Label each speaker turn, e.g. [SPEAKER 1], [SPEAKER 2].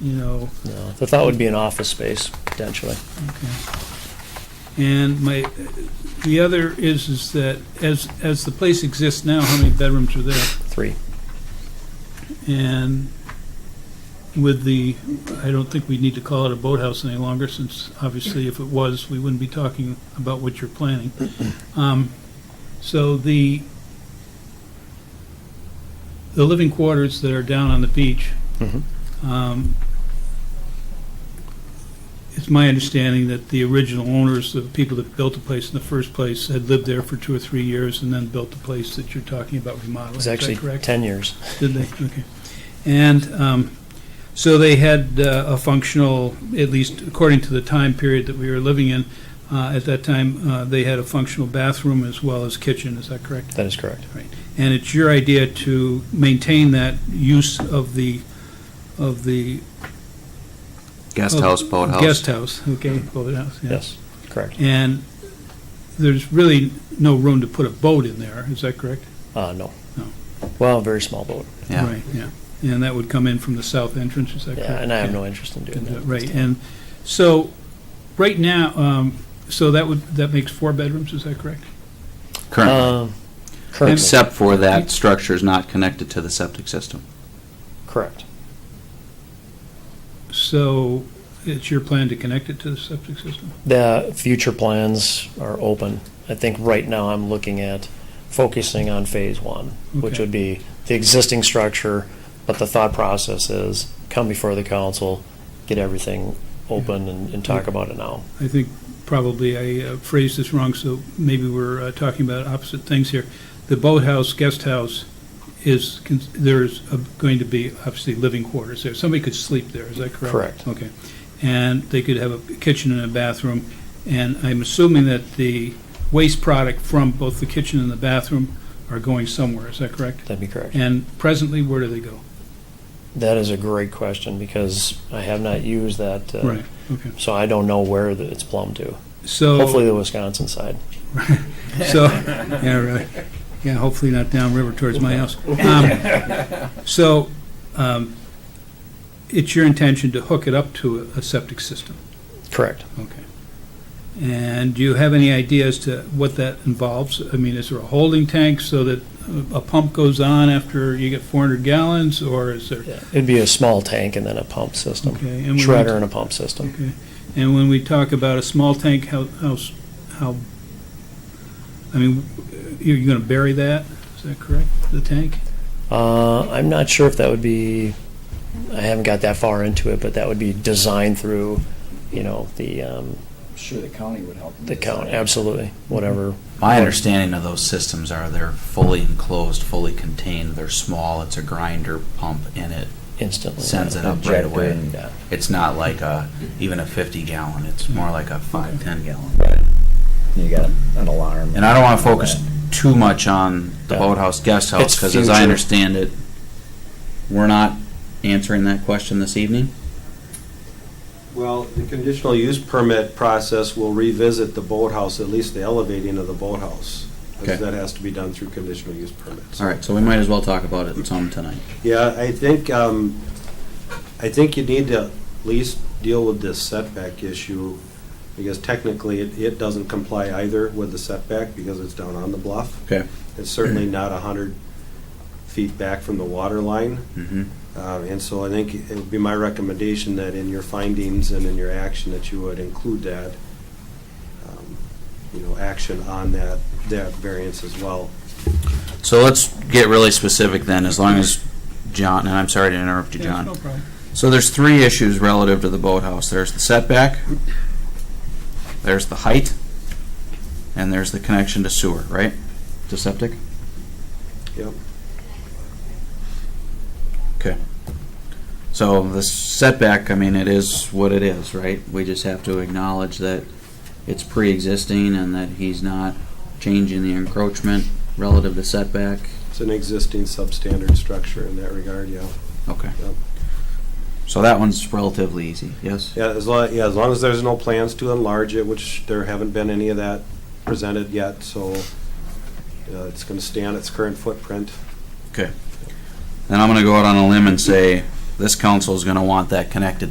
[SPEAKER 1] you know,
[SPEAKER 2] You know, the thought would be an office space potentially.
[SPEAKER 1] and my, the other is, is that as, as the place exists now, how many bedrooms are there?
[SPEAKER 2] Three.
[SPEAKER 1] And with the, I don't think we need to call it a boathouse any longer, since obviously if it was, we wouldn't be talking about what you're planning. Um, So the, the living quarters that are down on the beach,
[SPEAKER 2] Mhm.
[SPEAKER 1] um, it's my understanding that the original owners, the people that built the place in the first place, had lived there for two or three years and then built the place that you're talking about remodeling. Is
[SPEAKER 2] It's
[SPEAKER 1] that
[SPEAKER 2] actually
[SPEAKER 1] correct?
[SPEAKER 2] ten years.
[SPEAKER 1] Did they? Okay. And um, so they had uh, a functional, at least according to the time period that we were living in, uh, at that time, uh, they had a functional bathroom as well as kitchen, is that correct?
[SPEAKER 2] That is correct.
[SPEAKER 1] And it's your idea to maintain that use of the, of the.
[SPEAKER 3] Guest
[SPEAKER 1] of-
[SPEAKER 3] house, boathouse.
[SPEAKER 1] Oh. Guest house, okay, boathouse, yeah.
[SPEAKER 2] Yes, correct.
[SPEAKER 1] And there's really no room to put a boat in there, is that correct?
[SPEAKER 2] Uh, no.
[SPEAKER 1] No.
[SPEAKER 2] Well, very small boat.
[SPEAKER 3] Yeah,
[SPEAKER 1] Right, yeah. And that would come in from the south entrance, is that correct?
[SPEAKER 2] Yeah, and I have
[SPEAKER 1] Yeah.
[SPEAKER 2] no interest in doing
[SPEAKER 1] And, uh,
[SPEAKER 2] that.
[SPEAKER 1] Right, and so, right now, um, so that would, that makes four bedrooms, is that correct?
[SPEAKER 3] currently.
[SPEAKER 2] Um, currently,
[SPEAKER 3] Except for that structure is not connected to the septic system.
[SPEAKER 2] correct.
[SPEAKER 1] So it's your plan to connect it to the septic system?
[SPEAKER 2] The future plans are open. I think right now I'm looking at focusing on phase one, which
[SPEAKER 1] Okay.
[SPEAKER 2] would be the existing structure, but the thought process is come before the council, get everything open and, and talk about it now.
[SPEAKER 1] I think probably I uh, phrased this wrong, so maybe we're uh, talking about opposite things here. The boathouse, guest house is, cons- there's uh, going to be obviously living quarters there. Somebody could sleep there, is that correct?
[SPEAKER 2] Correct.
[SPEAKER 1] Okay. And they could have a kitchen and a bathroom, and I'm assuming that the waste product from both the kitchen and the bathroom are going somewhere, is that correct?
[SPEAKER 2] That'd be correct.
[SPEAKER 1] And presently, where do they go?
[SPEAKER 2] That is a great question because I have not used that. uh,
[SPEAKER 1] Right, Oh. okay.
[SPEAKER 2] So I don't know where the- it's plumbed to.
[SPEAKER 1] So.
[SPEAKER 2] Hopefully the Wisconsin side.
[SPEAKER 1] So, yeah, right. Yeah, hopefully not downriver towards my house. Um, So, um, it's your intention to hook it up to a- a septic system?
[SPEAKER 2] Correct.
[SPEAKER 1] Okay. And do you have any idea as to what that involves? I mean, is there a holding tank so that a pump goes on after you get 400 gallons, or is there?
[SPEAKER 2] Yeah. It'd be a small tank and then a pump system.
[SPEAKER 1] Okay, and when we-
[SPEAKER 2] Shredder and a pump system.
[SPEAKER 1] Okay. And when we talk about a small tank, how, how, s- how, I mean, you're going to bury that? Is that correct, the tank?
[SPEAKER 2] Uh, I'm not sure if that would be, I haven't got that far into it, but that would be designed through, you know, the, um,
[SPEAKER 4] Sure, the county would help. them
[SPEAKER 2] the count,
[SPEAKER 4] decide.
[SPEAKER 2] absolutely, whatever.
[SPEAKER 3] My understanding of those systems are they're fully enclosed, fully contained, they're small, it's a grinder pump in it,
[SPEAKER 2] Instantly.
[SPEAKER 3] sends it up right
[SPEAKER 4] Injector
[SPEAKER 3] away.
[SPEAKER 4] and-
[SPEAKER 2] Yeah.
[SPEAKER 3] It's not like a, even a 50 gallon, it's more like a 5, 10 gallon.
[SPEAKER 4] You got an alarm.
[SPEAKER 3] And I don't want to focus too much on the
[SPEAKER 2] Yeah.
[SPEAKER 3] boathouse, guest house,
[SPEAKER 2] It's
[SPEAKER 3] because as I
[SPEAKER 2] future.
[SPEAKER 3] understand it, we're not answering that question this evening.
[SPEAKER 5] Well, the conditional use permit process will revisit the boathouse, at least the elevating of the boathouse. 'cause
[SPEAKER 3] Okay.
[SPEAKER 5] that has to be done through conditional use permits.
[SPEAKER 3] All right, so we might as well talk about it some tonight.
[SPEAKER 5] Yeah, I think, um, I think you need to at least deal with this setback issue, because technically, it, it doesn't comply either with the setback, because it's down on the bluff.
[SPEAKER 3] Okay.
[SPEAKER 5] It's certainly not a hundred feet back from the water line.
[SPEAKER 3] Mhm.
[SPEAKER 5] Uh, And so I think it would be my recommendation that in your findings and in your action that you would include that, um, you know, action on that, that variance as well.
[SPEAKER 3] So let's get really specific then, as long as John, and I'm sorry to interrupt you,
[SPEAKER 1] Yes, No
[SPEAKER 3] John.
[SPEAKER 1] problem.
[SPEAKER 3] So there's three issues relative to the boathouse. There's the setback, there's the height, and there's the connection to sewer, right? To septic?
[SPEAKER 5] Yep.
[SPEAKER 3] Okay. So the setback, I mean, it is what it is, right? We just have to acknowledge that it's pre-existing and that he's not changing the encroachment relative to setback.
[SPEAKER 5] It's an existing substandard structure in that regard, yeah.
[SPEAKER 3] Okay.
[SPEAKER 5] Yep.
[SPEAKER 3] So that one's relatively easy, yes?
[SPEAKER 5] Yeah, as long, yeah, as long as there's no plans to enlarge it, which there haven't been any of that presented yet, so uh, it's going to stay on its current footprint.
[SPEAKER 3] Then I'm gonna go out on a limb and say this council's gonna want that connected to